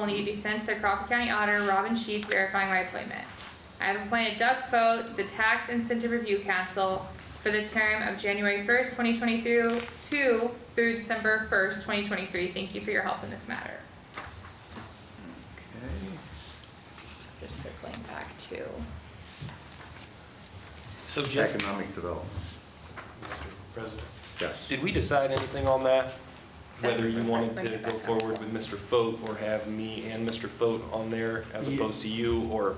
will need to be sent to the Crawford County Auditor, Robin Sheets, verifying my appointment. I have appointed Doug Fote to the Tax Incentive Review Council for the term of January first, twenty twenty-two, two through December first, twenty twenty-three. Thank you for your help in this matter. Okay. Just circling back to, So Jim, Economic development, Mr. President, yes. did we decide anything on that? Whether you wanted to Bring it go back up. forward with Mr. Foat or have me and Mr. Foat on there as Yeah. opposed to you or?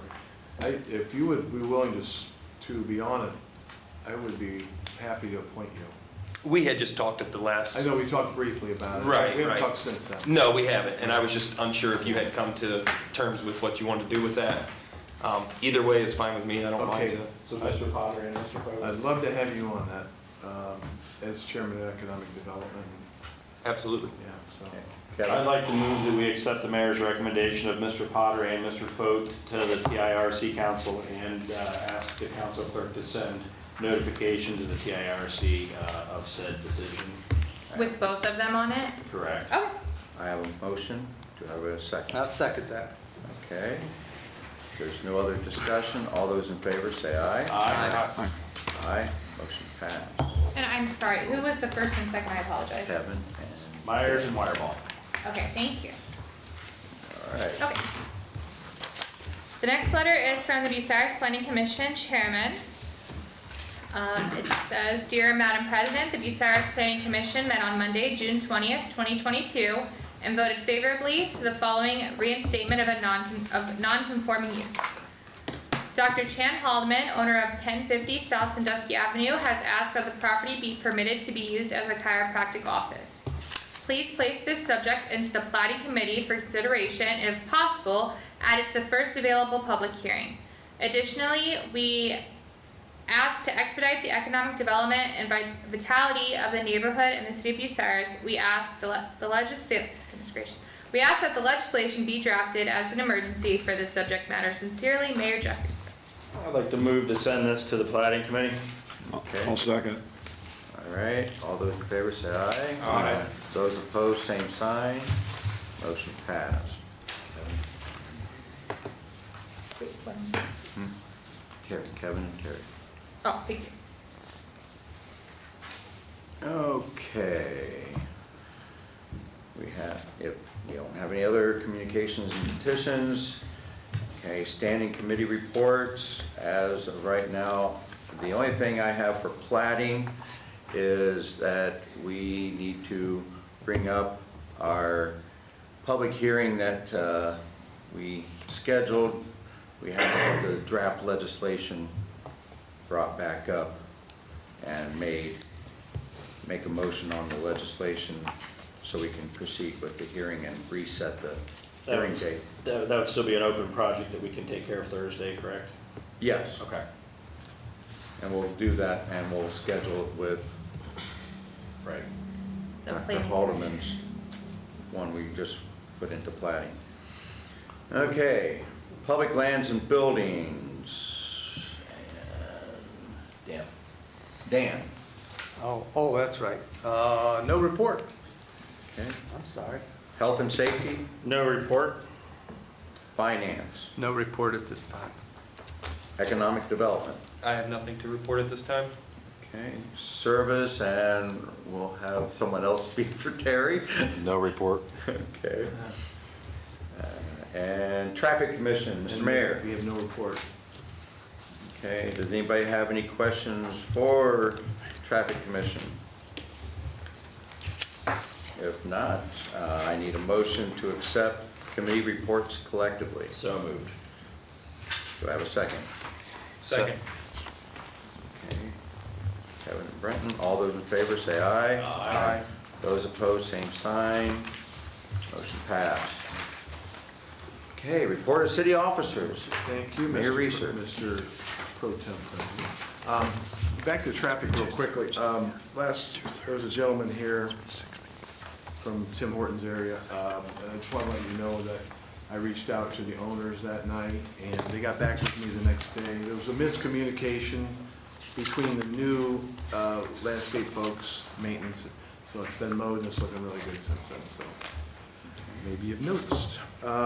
I, if you would be willing to, s- to be on it, I would be happy to appoint you. We had just talked at the last, I know we talked briefly about it. Right, We haven't right. talked since then. no, we haven't. And I was just unsure if you had come to terms with what you wanted to do with that. Um, Either way is fine with me. I don't mind Okay. to. So Mr. Potter and Mr. Fogel. I'd love to have you on that, um, as chairman of economic development, Absolutely. yeah, so. Okay. I'd Kevin, like to move that we accept the mayor's recommendation of Mr. Potter and Mr. Foat to the TIRC council and uh, ask the council clerk to send notification to the TIRC uh, of said decision. with both of them on it. Correct. Okay, I have a motion, do I have a second? I'll second that. Okay. There's no other discussion, all those in favor say aye. Aye. Aye, motion passed. and I'm sorry, who was the first and second? I apologize. Kevin and, Myers and Wireball. Okay, thank you. all right. Okay. The next letter is from the Bucyrus Planning Commission Chairman. Um, it says, Dear Madam President, the Bucyrus Planning Commission met on Monday, June twentieth, twenty twenty-two, and voted favorably to the following reinstatement of a non, of non-conforming use. Dr. Chan Haldeman, owner of ten fifty South Sandusky Avenue, has asked that the property be permitted to be used as a chiropractic office. Please place this subject into the plating committee for consideration and if possible, add it to the first available public hearing. Additionally, we ask to expedite the economic development and vi- vitality of the neighborhood and the city of Bucyrus. We ask the, le- the legisla- goodness gracious. we ask that the legislation be drafted as an emergency for this subject matter. Sincerely, Mayor Jeffries. I'd like to move to send this to the plating committee. Okay, second. all right, all those in favor say aye. Aye. Those opposed, same sign, motion passed. Kevin- Terry, Kevin and Terry. Oh, thank you. Okay. We have, if you don't have any other communications and petitions, okay, standing committee reports. As of right now, the only thing I have for plating is that we need to bring up our public hearing that uh, we scheduled. We have the draft legislation brought back up and made make a motion on the legislation so we can proceed with the hearing and reset the That hearing was- date. That that would still be an open project that we can take care of Thursday, correct? Yes. Okay. And we'll do that and we'll schedule it with Right. The Dr. planning- Haldeman's one we just put into plating. Okay, public lands and buildings. Dan. Dan, Oh, oh, that's right. Uh, no report. okay. I'm sorry. Health and safety, No report? finance, No report at this time. economic development. I have nothing to report at this time. Okay, service, and we'll have someone else speak for Terry. No report. Okay. Uh, And traffic commission, Mr. And Mayor. We have no report. Okay, does anybody have any questions for traffic commission? If not, uh, I need a motion to accept committee reports collectively. So moved. Do I have a second? Second. Okay. Kevin and Brenton, all those in favor say aye. Aye. Those opposed, same sign. Motion passed. Okay, report of city officers. Thank you, Mayor Mr. Reeser. Mr. Pro Tem President. Um, Back to traffic real quickly. Um, Last, there was a gentleman here from Tim Hortons area. Um, And I just want to let you know that I reached out to the owners that night, and they got back with me the next day. There was a miscommunication between the new uh, landscape folks, maintenance, so it's been mowed, and it's looking really good since then, so maybe you've noticed. Uh,